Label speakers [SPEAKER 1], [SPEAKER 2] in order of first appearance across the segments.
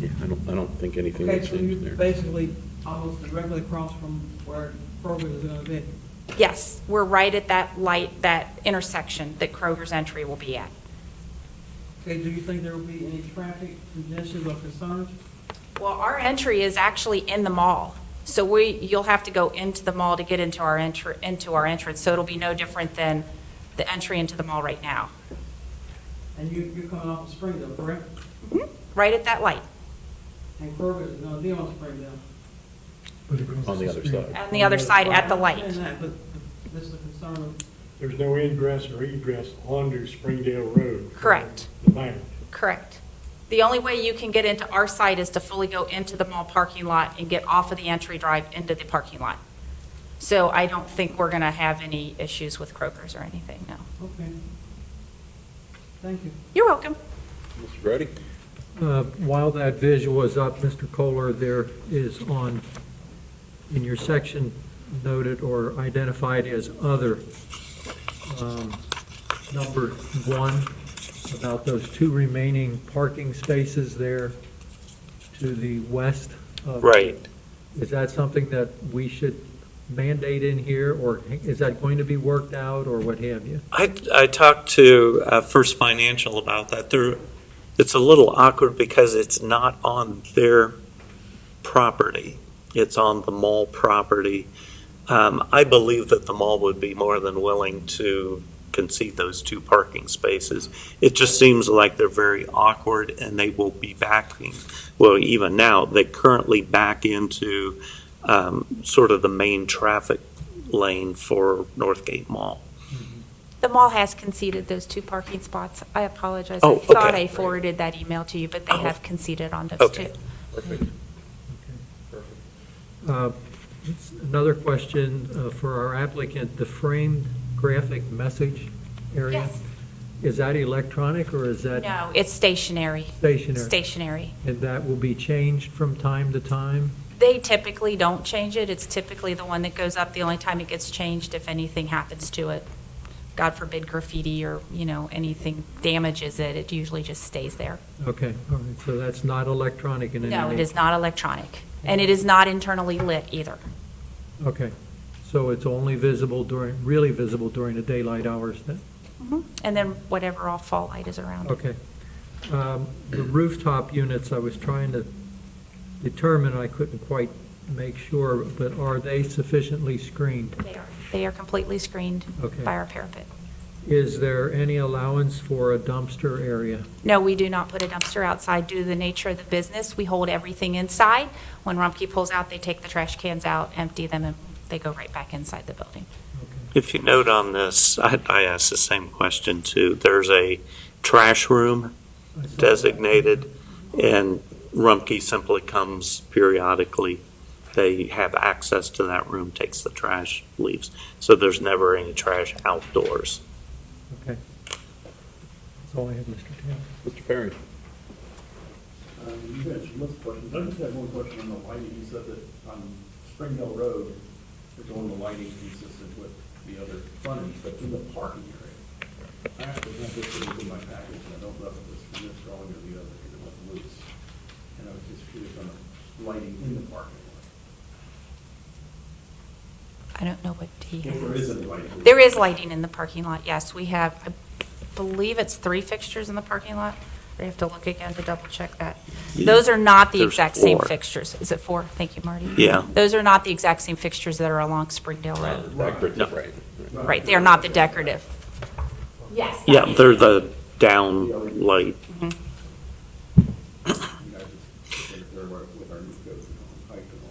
[SPEAKER 1] Yeah, I don't, I don't think anything
[SPEAKER 2] Okay,
[SPEAKER 1] would
[SPEAKER 2] so
[SPEAKER 1] change
[SPEAKER 2] you're
[SPEAKER 1] there.
[SPEAKER 2] basically almost directly across from where Kroger is gonna be.
[SPEAKER 3] Yes, we're right at that light, that intersection that Kroger's entry will be at.
[SPEAKER 2] Okay, do you think there will be any traffic congestion or concerns?
[SPEAKER 3] Well, our entry is actually in the mall, so we, you'll have to go into the mall to get into our entr, into our entrance, so it'll be no different than the entry into the mall right now,
[SPEAKER 2] And you, you're coming off of Springdale, correct?
[SPEAKER 3] Mm-hmm. right at that light,
[SPEAKER 2] And Kroger is gonna be on Springdale.
[SPEAKER 1] On the other side.
[SPEAKER 3] on the other side at the
[SPEAKER 2] I
[SPEAKER 3] light.
[SPEAKER 2] understand that, But this is a concern,
[SPEAKER 4] There's no ingress or egress onto Springdale Road. from
[SPEAKER 3] Correct.
[SPEAKER 4] The bank.
[SPEAKER 3] Correct. The only way you can get into our site is to fully go into the mall parking lot and get off of the entry drive into the parking lot. So I don't think we're going to have any issues with Kroger's or anything, no.
[SPEAKER 2] okay. Thank you.
[SPEAKER 3] You're welcome.
[SPEAKER 1] Mr. Grady?
[SPEAKER 5] Uh, While that visual is up, Mr. Kohler, there is on, in your section noted or identified as other, um, number one, about those two remaining parking spaces there to the west of.
[SPEAKER 6] Right.
[SPEAKER 5] Is that something that we should mandate in here, or is that going to be worked out, or what have you?
[SPEAKER 6] I, I talked to uh, First Financial about that. They're, it's a little awkward because it's not on their property. It's on the mall property. Um, I believe that the mall would be more than willing to concede those two parking spaces. It just seems like they're very awkward and they will be backing, well, even now, they currently back into um, sort of the main traffic lane for Northgate Mall.
[SPEAKER 3] The mall has conceded those two parking spots. I apologize.
[SPEAKER 6] Oh,
[SPEAKER 3] I thought
[SPEAKER 6] okay.
[SPEAKER 3] I forwarded that email to you, but they
[SPEAKER 6] Oh.
[SPEAKER 3] have conceded on those
[SPEAKER 6] Okay.
[SPEAKER 3] two.
[SPEAKER 1] Perfect.
[SPEAKER 5] Uh, Another question uh, for our applicant, the framed graphic message area?
[SPEAKER 3] Yes.
[SPEAKER 5] Is that electronic or is that
[SPEAKER 3] No, it's stationary,
[SPEAKER 5] stationary?
[SPEAKER 3] stationary.
[SPEAKER 5] And that will be changed from time to time?
[SPEAKER 3] They typically don't change it. It's typically the one that goes up. The only time it gets changed if anything happens to it. God forbid graffiti or, you know, anything damages it, it usually just stays there.
[SPEAKER 5] Okay, all right, so that's not electronic in any way?
[SPEAKER 3] No, it is not electronic, and it is not internally lit either.
[SPEAKER 5] Okay, so it's only visible during, really visible during the daylight hours then?
[SPEAKER 3] And then whatever all fall light is around. it.
[SPEAKER 5] Okay. Um, The rooftop units, I was trying to determine, I couldn't quite make sure, but are they sufficiently screened?
[SPEAKER 3] They are, they are completely screened
[SPEAKER 5] Okay.
[SPEAKER 3] by our parapet.
[SPEAKER 5] Is there any allowance for a dumpster area?
[SPEAKER 3] No, we do not put a dumpster outside due to the nature of the business. We hold everything inside. When Rumpke pulls out, they take the trash cans out, empty them, and they go right back inside the building.
[SPEAKER 6] If you note on this, I, I asked the same question too. There's a trash room
[SPEAKER 5] I saw-
[SPEAKER 6] designated, and Rumpke simply comes periodically. They have access to that room, takes the trash, leaves. So there's never any trash outdoors.
[SPEAKER 5] Okay. That's all I have, Mr. Taylor.
[SPEAKER 1] Mr. Perry?
[SPEAKER 7] Uh, You mentioned lots of questions. I just have one question on the lighting. You said that on Springdale Road, you're doing the lighting consistent with the other frontage, but in the parking area. I actually have this in my package, and I don't know if it's from this drawing or the other, because it went loose. And I was just curious on the lighting in the parking lot.
[SPEAKER 3] I don't know what he
[SPEAKER 7] If there is
[SPEAKER 3] has.
[SPEAKER 7] any lighting.
[SPEAKER 3] There is lighting in the parking lot, yes. We have, I believe it's three fixtures in the parking lot. I have to look again to double check that. Those are not the
[SPEAKER 6] There's
[SPEAKER 3] exact same
[SPEAKER 6] four.
[SPEAKER 3] fixtures. Is it four? Thank you, Marty.
[SPEAKER 6] Yeah.
[SPEAKER 3] Those are not the exact same fixtures that are along Springdale Road.
[SPEAKER 1] Decorative,
[SPEAKER 6] No.
[SPEAKER 1] right. right.
[SPEAKER 3] Right, they are not the decorative. Yes.
[SPEAKER 6] Yeah, they're the down light.
[SPEAKER 7] You know, I just think there were with our new codes and all, height and all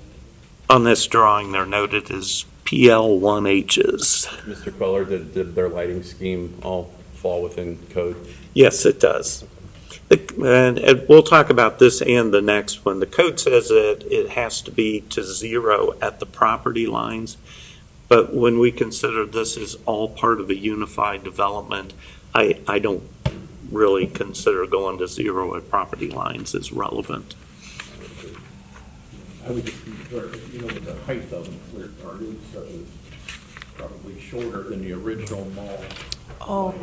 [SPEAKER 7] that.
[SPEAKER 6] On this drawing, they're noted as PL1Hs.
[SPEAKER 1] Mr. Queller, did, did their lighting scheme all fall within code?
[SPEAKER 6] Yes, it does. The- And, and we'll talk about this and the next one. The code says that it has to be to zero at the property lines. But when we consider this is all part of a unified development, I, I don't really consider going to zero at property lines as relevant.
[SPEAKER 7] I would just be clear, you know, with the height of them, where our new stuff is probably shorter than the original mall.
[SPEAKER 3] Oh,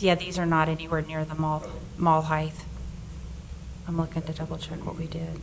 [SPEAKER 3] yeah, these are not anywhere near the mall, mall height. I'm looking to double check what we did.